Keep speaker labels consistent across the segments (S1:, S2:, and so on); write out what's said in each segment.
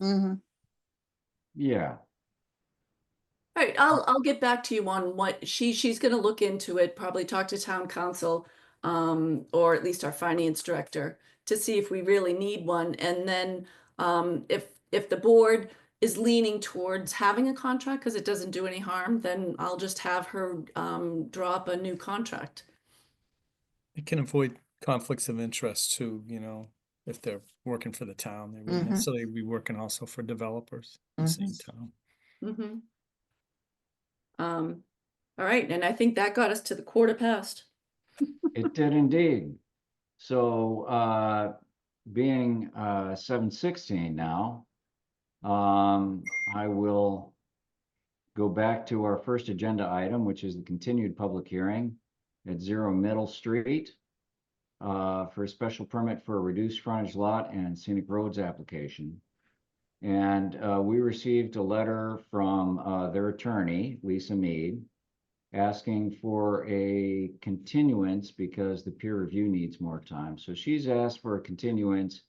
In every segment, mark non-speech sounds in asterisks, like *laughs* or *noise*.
S1: Mhm.
S2: Yeah,
S3: All right, I'll, I'll get back to you on what she, she's gonna look into it, probably talk to town council, um, or at least our finance director to see if we really need one. And then, um, if, if the board is leaning towards having a contract because it doesn't do any harm, then I'll just have her, um, draw up a new contract.
S4: It can avoid conflicts of interest too, you know, if they're working for the town, they
S1: Mhm.
S4: wouldn't necessarily be working also for developers in the same town.
S3: Mhm. Um, all right, and I think that got us to the quarter past.
S2: it did indeed. So, uh, being, uh, seven sixteen now, um, I will go back to our first agenda item, which is the continued public hearing at Zero Middle Street uh, for a special permit for a reduced frontage lot and scenic roads application. And, uh, we received a letter from, uh, their attorney, Lisa Mead, asking for a continuance because the peer review needs more time. So she's asked for a continuance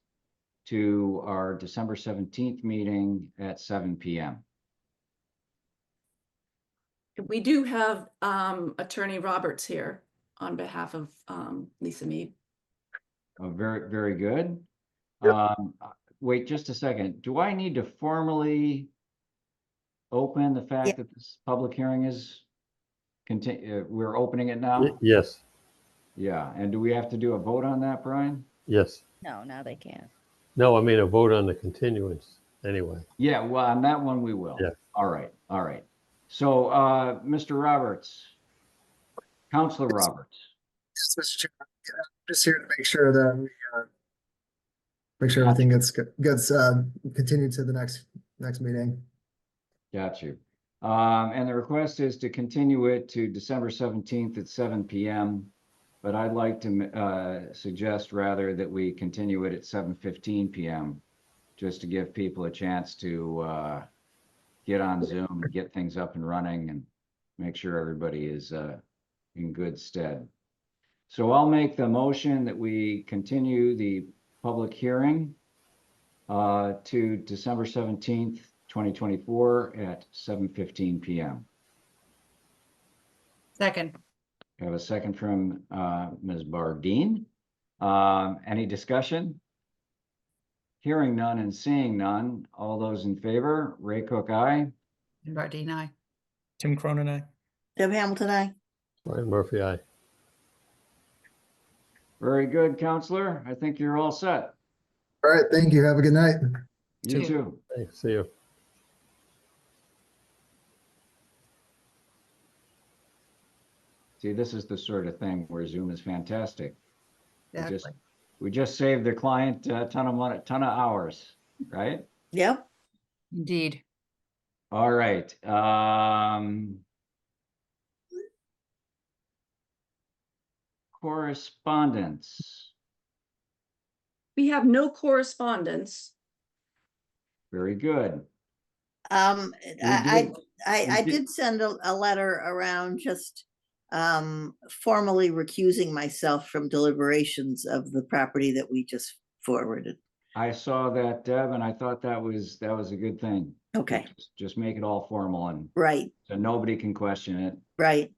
S2: to our December seventeenth meeting at seven PM.
S3: We do have um Attorney Roberts here on behalf of um Lisa Mead.
S2: Uh, very, very good. Um, uh, wait just a second. Do I need to formally open the fact that this public hearing is continue, we're opening it now?
S5: Y- Yes,
S2: Yeah, and do we have to do a vote on that, Brian?
S5: yes.
S1: No, now they can't.
S5: No, I mean a vote on the continuance anyway.
S2: Yeah, well, on that one, we will.
S5: Yeah.
S2: All right, all right. So, uh, Mr. Roberts, Counselor Roberts,
S6: Yes, Mr. Chairman, Yeah, just here to make sure that we, uh, make sure everything gets, gets, uh, continued to the next, next meeting.
S2: got you. Um, and the request is to continue it to December seventeenth at seven PM. But I'd like to, uh, suggest rather that we continue it at seven fifteen PM, just to give people a chance to, uh, get on Zoom, get things up and running and make sure everybody is, uh, in good stead. So I'll make the motion that we continue the public hearing uh, to December seventeenth, twenty twenty-four at seven fifteen PM.
S1: Second.
S2: I have a second from uh, Ms. Bardine. Um, Any discussion? Hearing none and seeing none. All those in favor, Ray Cook, aye.
S7: And Bardine, aye.
S4: Tim Cronin, I,
S1: Deb Hamilton, I.
S5: Brian Murphy, aye.
S2: Very good, Counselor. I think you're all set.
S6: All right, thank you. Have a good night.
S2: You
S4: Two.
S2: too.
S5: Thanks, see you.
S2: See, this is the sort of thing where Zoom is fantastic. We just-
S7: Exactly.
S2: We just saved the client a ton of money, ton of hours, right?
S1: Yep.
S7: Indeed.
S2: All right, um. Correspondence,
S3: We have no correspondence.
S2: very good.
S1: Um,
S2: We
S1: I, I,
S2: did- we
S1: I, I
S2: did-
S1: did send a, a letter around just um, formally recusing myself from deliberations of the property that we just forwarded.
S2: I saw that, Deb, and I thought that was, that was a good thing.
S1: Okay,
S2: Just- Just make it all formal and
S1: right,
S2: so nobody can question it.
S1: right.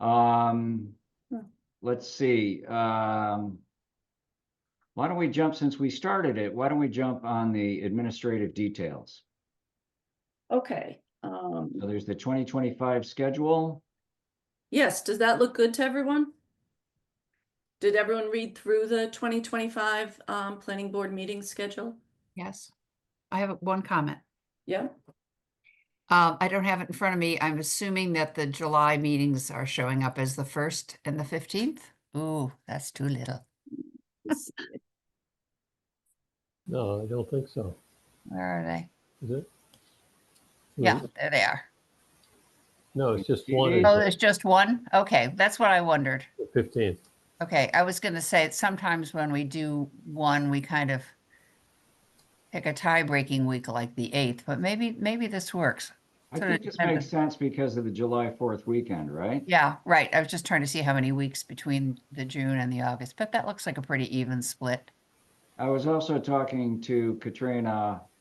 S2: Um,
S1: Yeah.
S2: let's see, um. Why don't we jump, since we started it, why don't we jump on the administrative details?
S3: Okay, um,
S2: So there's the twenty twenty-five schedule.
S3: yes, does that look good to everyone? Did everyone read through the twenty twenty-five um planning board meeting schedule?
S7: Yes. I have one comment.
S3: Yeah,
S7: Um, I don't have it in front of me. I'm assuming that the July meetings are showing up as the first and the fifteenth. Ooh, that's too *laughs* little.
S5: No, I don't think so.
S7: Where are they?
S5: Is it?
S7: Yeah,
S5: No,
S7: there they are.
S5: No, it's just one.
S2: It
S5: is
S2: is.
S7: Oh,
S5: the
S7: there's just one? Okay, that's what I wondered.
S5: 15th.
S7: Okay, I was gonna say, sometimes when we do one, we kind of pick a tie-breaking week like the eighth, but maybe, maybe this works.
S2: I
S7: So it
S2: think this
S7: depends.
S2: makes sense because of the July fourth weekend, right?
S7: Yeah, right. I was just trying to see how many weeks between the June and the August, but that looks like a pretty even split.
S2: I was also talking to Katrina